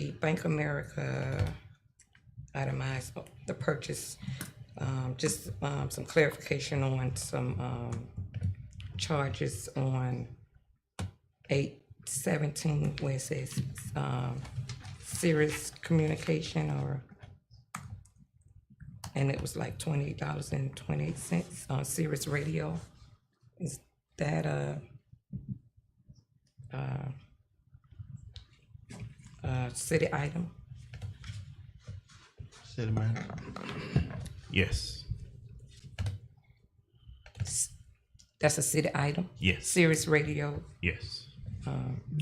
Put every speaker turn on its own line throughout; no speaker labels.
the Bank of America itemized the purchase, um, just, um, some clarification on some, um, charges on eight seventeen, where it says, um, serious communication or, and it was like twenty dollars and twenty-eight cents, on Sirius Radio. Is that a, a city item?
City manager.
Yes.
That's a city item?
Yes.
Sirius Radio,
Yes.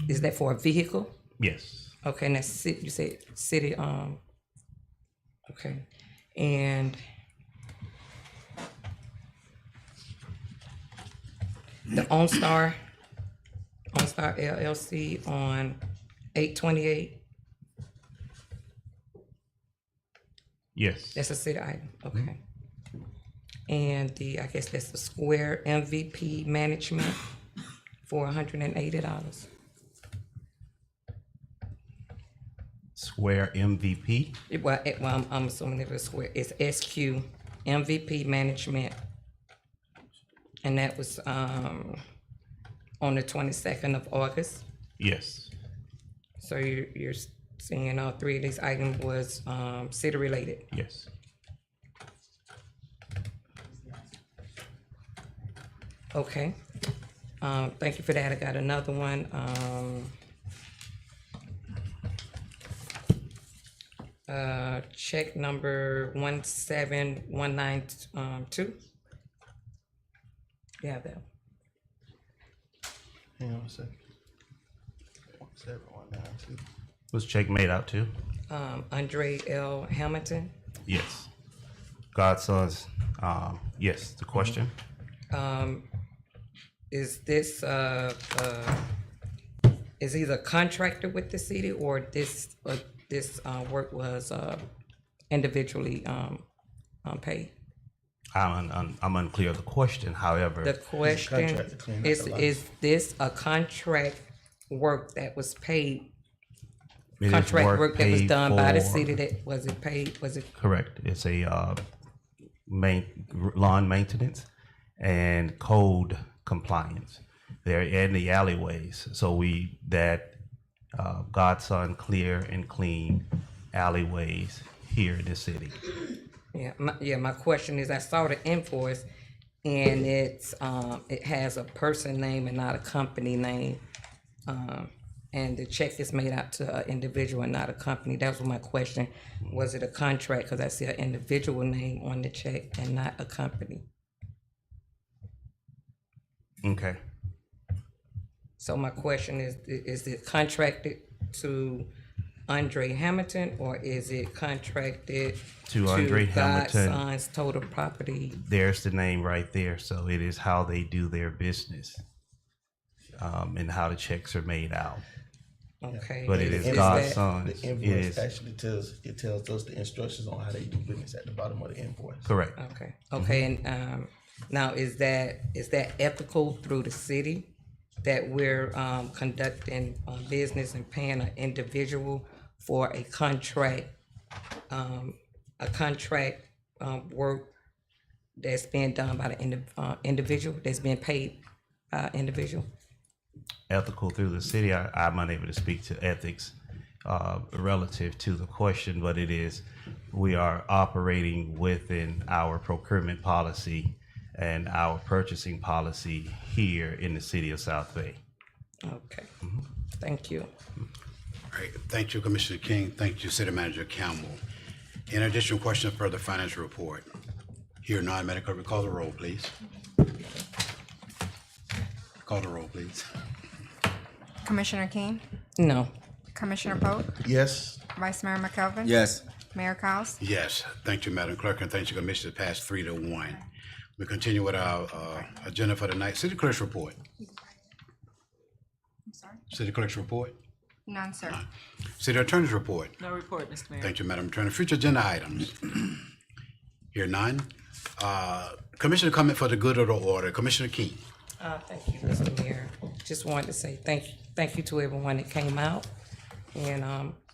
is that for a vehicle?
Yes.
Okay, and that's ci- you said city, um, okay, and the OnStar, OnStar LLC on eight twenty-eight,
Yes.
that's a city item, okay. And the, I guess that's the Square MVP Management for hundred and eighty dollars.
Square MVP.
It, well, it, well, I'm, I'm assuming it was square, it's SQ MVP Management. And that was, um, on the twenty-second of August.
Yes.
So you're, you're seeing all three of these items was, um, city-related.
Yes.
Okay. Um, thank you for that. I got another one, um. Uh, check number one seven one nine, um, two. You have that?
Hang on a second. Seven one nine two.
Was check made out too?
Um, Andre L. Hamilton,
Yes. Godson's. Um, yes. The question.
is this, uh, uh, is either contracted with the city or this, or this, uh, work was, uh, individually, um, um, paid?
I'm un- un- I'm unclear of the question. However,
The question,
contract to clean up
is,
the lot.
is this a contract work that was paid?
it is
Contract work that was
paid
done by the
for-
city that, was it paid, was it,
Correct. It's a uh, main lawn maintenance and code compliance. They're in the alleyways, so we that uh, Godson clear and clean alleyways here in the city.
yeah, my, yeah, my question is, I saw the invoice and it's, um, it has a person name and not a company name. Um, and the check is made out to an individual and not a company, that was my question, was it a contract? Cause I see an individual name on the check and not a company.
Okay.
So my question is, is it contracted to Andre Hamilton or is it contracted?
To Andre Hamilton.
Godson's total property,
There's the name right there. So it is how they do their business um, and how the checks are made out.
okay.
But it is
that-
The
Godson's. It
invoice
is
actually tells it tells us the instructions on how they do business at the bottom of the invoice.
correct.
Okay, okay, and, um, now is that, is that ethical through the city? That we're, um, conducting, uh, business and paying an individual for a contract, um, a contract, um, work that's being done by the indi- uh, individual, that's being paid by individual?
ethical through the city. I, I'm unable to speak to ethics uh, relative to the question, but it is we are operating within our procurement policy and our purchasing policy here in the city of South Bay.
Okay, thank you.
Great. Thank you, Commissioner King. Thank you, City Manager Campbell. In addition, question for the financial report. Here, non-medical, we call the roll, please. Call the roll, please.
Commissioner King,
No,
Commissioner Pope,
Yes.
Vice Mayor McKelvin.
Yes.
Mayor Cowes,
Yes, thank you, Madam Clerk, and thank you, Commissioner, passed three to one. We continue with our uh, agenda for tonight. City Clerk's report.
I'm sorry.
City Clerk's report.
None, sir.
City Attorney's report.
No report, Mr. Mayor.
Thank you, Madam Attorney. Future agenda items. Here none. Uh, Commissioner comment for the good of the order. Commissioner King.
Uh, thank you, Mr. Mayor. Just wanted to say thank, thank you to everyone that came out. And, um,